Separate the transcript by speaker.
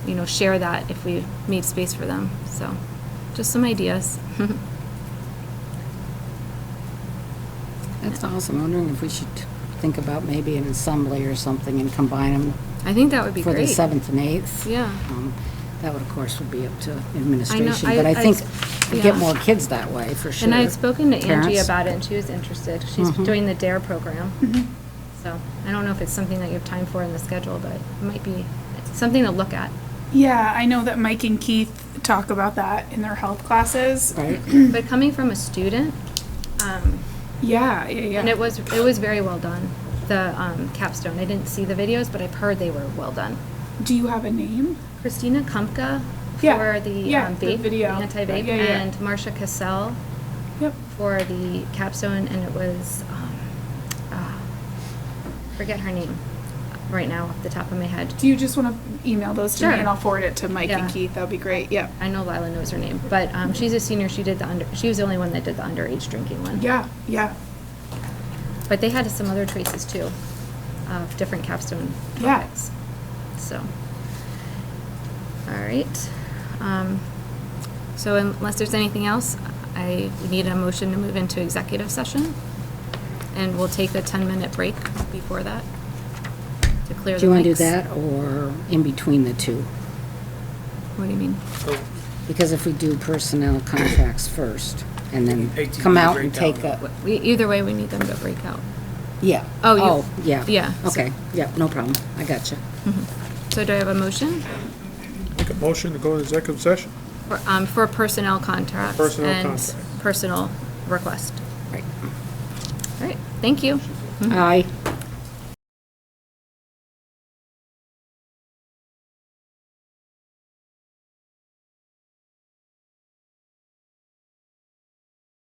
Speaker 1: you know, share that if we made space for them. So, just some ideas.
Speaker 2: That's awesome. I'm wondering if we should think about maybe an assembly or something and combine them
Speaker 1: I think that would be
Speaker 2: for the
Speaker 1: great.
Speaker 2: 7th and 8th.
Speaker 1: Yeah.
Speaker 2: Um, That would, of course, would be up to administration,
Speaker 1: I-
Speaker 2: but I
Speaker 1: I-
Speaker 2: think we get
Speaker 1: yeah.
Speaker 2: more kids that way, for sure.
Speaker 1: And I had spoken to Angie
Speaker 2: Parents.
Speaker 1: about it, and she was interested. She's
Speaker 2: Mm-hmm.
Speaker 1: doing the DARE program. So I don't know if it's something that you have time for in the schedule, but it might be something to look at.
Speaker 3: Yeah, I know that Mike and Keith talk about that in their health classes.
Speaker 2: Right?
Speaker 1: But coming from a student, um,
Speaker 3: Yeah, yeah,
Speaker 1: and it
Speaker 3: yeah.
Speaker 1: was, it was very well done, the um, capstone. I didn't see the videos, but I've heard they were well done.
Speaker 3: Do you have a name?
Speaker 1: Christina Kumpka
Speaker 3: Yeah,
Speaker 1: for the
Speaker 3: yeah,
Speaker 1: um,
Speaker 3: the
Speaker 1: vape, the
Speaker 3: video.
Speaker 1: anti-vape,
Speaker 3: Yeah, yeah.
Speaker 1: and Marsha Cassell
Speaker 3: Yep.
Speaker 1: for the capstone, and it was, um, ah, forget her name right now off the top of my head.
Speaker 3: Do you just want to email those to
Speaker 1: Sure.
Speaker 3: me and I'll forward it to Mike
Speaker 1: Yeah.
Speaker 3: and Keith? That'd be great. Yep.
Speaker 1: I know Lila knows her name, but um, she's a senior. She did the under, she was the only one that did the underage drinking one.
Speaker 3: Yeah, yeah,
Speaker 1: But they had some other choices too, of different capstone
Speaker 3: Yeah.
Speaker 1: topics. So, all right. Um, So unless there's anything else, I need a motion to move into executive session. And we'll take a 10-minute break before that to clear the mics.
Speaker 2: Do you want to do that or in between the two?
Speaker 1: What do you mean?
Speaker 2: Because if we do personnel contracts first and then
Speaker 4: 18
Speaker 2: come out and
Speaker 4: breakdown.
Speaker 2: take a,
Speaker 1: We, either way, we need them to break out.
Speaker 2: yeah.
Speaker 1: Oh, you-
Speaker 2: yeah.
Speaker 1: yeah, so-
Speaker 2: Okay, yeah, no problem. I got you.
Speaker 1: So do I have a motion?
Speaker 4: Make a motion to go to executive session.
Speaker 1: For, um, for personnel contracts.
Speaker 4: Personnel
Speaker 1: And
Speaker 4: contracts.
Speaker 1: personal request.
Speaker 2: Right.
Speaker 1: All right, thank you.
Speaker 2: Aye.